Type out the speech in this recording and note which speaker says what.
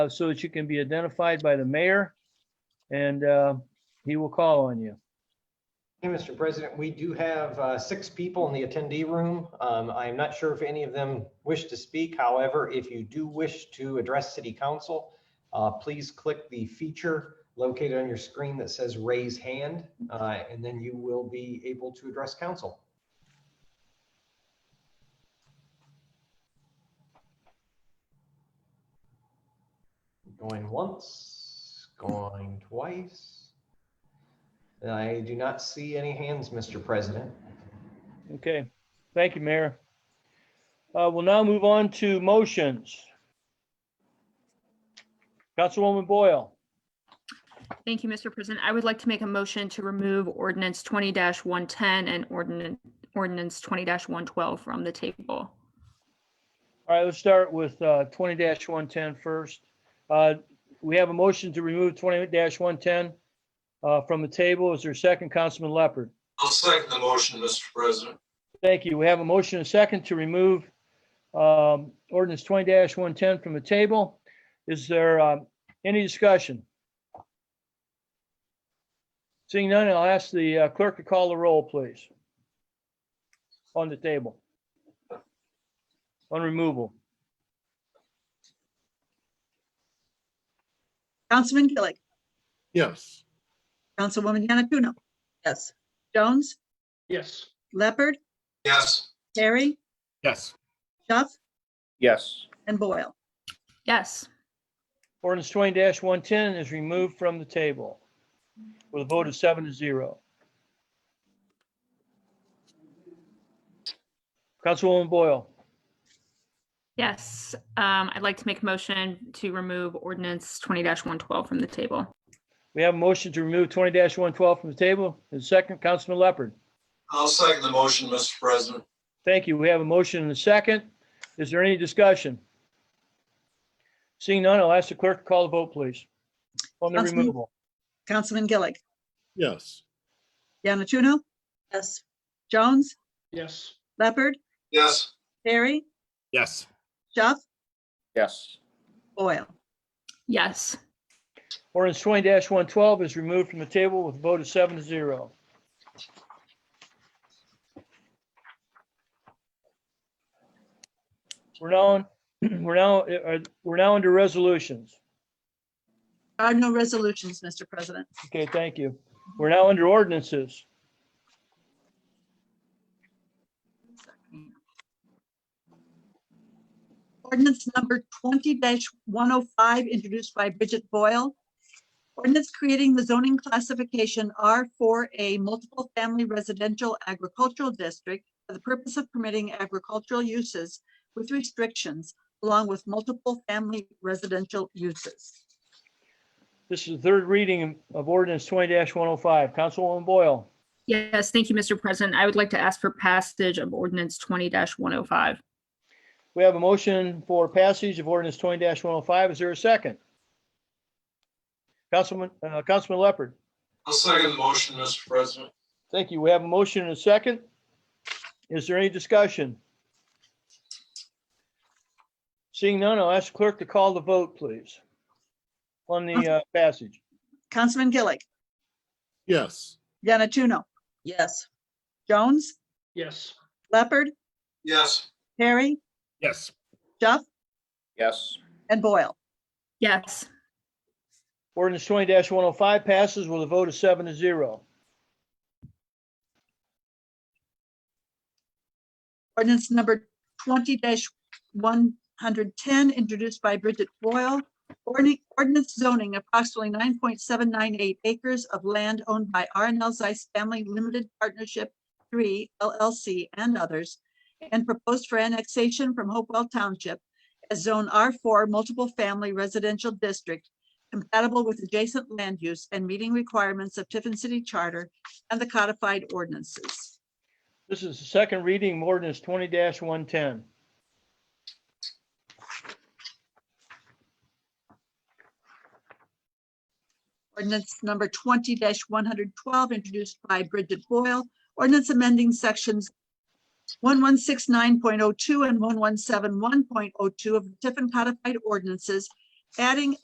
Speaker 1: uh, so that you can be identified by the mayor, and uh, he will call on you.
Speaker 2: Hey, Mr. President, we do have uh, six people in the attendee room. Um, I'm not sure if any of them wish to speak. However, if you do wish to address city council, uh, please click the feature located on your screen that says raise hand, uh, and then you will be able to address council. Going once, going twice. I do not see any hands, Mr. President.
Speaker 1: Okay, thank you, Mayor. Uh, We'll now move on to motions. Councilwoman Boyle,
Speaker 3: Thank you, Mr. President. I would like to make a motion to remove ordinance twenty one ten and ordinance, ordinance twenty one twelve from the table.
Speaker 1: all right, let's start with uh, 20-110 first. Uh, We have a motion to remove 20-110 uh, from the table. Is there a second, Councilman Leopard?
Speaker 4: I'll second the motion, Mr. President.
Speaker 1: Thank you. We have a motion and a second to remove um, ordinance twenty one ten from the table. Is there um, any discussion? Seeing none, I'll ask the uh, clerk to call the roll, please. On the table. On removal.
Speaker 5: Councilman Gillig,
Speaker 6: Yes.
Speaker 5: Councilwoman Yanatuno. Yes. Jones,
Speaker 6: Yes.
Speaker 5: Leopard,
Speaker 4: Yes,
Speaker 5: Terry,
Speaker 6: Yes.
Speaker 5: Duff,
Speaker 6: Yes.
Speaker 5: and Boyle.
Speaker 3: Yes,
Speaker 1: Ordinance twenty one ten is removed from the table with a vote of seven to zero. Councilwoman Boyle.
Speaker 3: yes. Um, I'd like to make a motion to remove ordinance twenty one twelve from the table.
Speaker 1: We have a motion to remove twenty one twelve from the table. And second, Councilman Leopard.
Speaker 4: I'll second the motion, Mr. President.
Speaker 1: Thank you. We have a motion and a second. Is there any discussion? Seeing none, I'll ask the clerk to call the vote, please. On the
Speaker 5: Councilman-
Speaker 1: removal.
Speaker 5: Councilman Gillig,
Speaker 6: Yes.
Speaker 5: Yanatuno. Yes. Jones,
Speaker 6: Yes.
Speaker 5: Leopard,
Speaker 4: Yes,
Speaker 5: Terry,
Speaker 6: Yes.
Speaker 5: Duff,
Speaker 6: Yes.
Speaker 5: Boyle.
Speaker 3: Yes,
Speaker 1: Ordinance twenty one twelve is removed from the table with a vote of seven to zero. We're now, on- we're now, uh, we're now under resolutions.
Speaker 5: There are no resolutions, Mr. President.
Speaker 1: Okay, thank you. We're now under ordinances.
Speaker 5: Ordinance number twenty one oh five, introduced by Bridget Boyle. Ordinance creating the zoning classification R four A multiple family residential agricultural district for the purpose of permitting agricultural uses with restrictions along with multiple family residential uses.
Speaker 1: This is the third reading of ordinance twenty one oh five. Councilwoman Boyle,
Speaker 3: yes. Thank you, Mr. President. I would like to ask for passage of ordinance twenty one oh five.
Speaker 1: we have a motion for passage of ordinance twenty one oh five. Is there a second? Councilman, uh, Councilman Leopard,
Speaker 4: I'll second the motion, Mr. President.
Speaker 1: thank you. We have a motion and a second. Is there any discussion? Seeing none, I'll ask the clerk to call the vote, please. On the uh, passage.
Speaker 5: Councilman Gillig,
Speaker 6: Yes.
Speaker 5: Yanatuno. Yes. Jones,
Speaker 6: Yes.
Speaker 5: Leopard,
Speaker 4: Yes,
Speaker 5: Perry,
Speaker 6: Yes.
Speaker 5: Duff,
Speaker 6: Yes.
Speaker 5: and Boyle.
Speaker 3: Yes,
Speaker 1: Ordinance twenty one oh five passes with a vote of seven to zero.
Speaker 5: Ordinance number twenty one hundred ten, introduced by Bridget Boyle. Ordin- Ordinance zoning approximately nine point seven nine eight acres of land owned by R and L Zeiss Family Limited Partnership Three LLC and others, and proposed for annexation from Hopewell Township as Zone R four Multiple Family Residential District, compatible with adjacent land use and meeting requirements of Tiffin City Charter and the codified ordinances.
Speaker 1: This is the second reading, of ordinance twenty one ten.
Speaker 5: Ordinance number twenty one hundred twelve, introduced by Bridget Boyle. Ordinance amending sections one one six nine point oh two and one one seven one point oh two of the Tiffin codified ordinances adding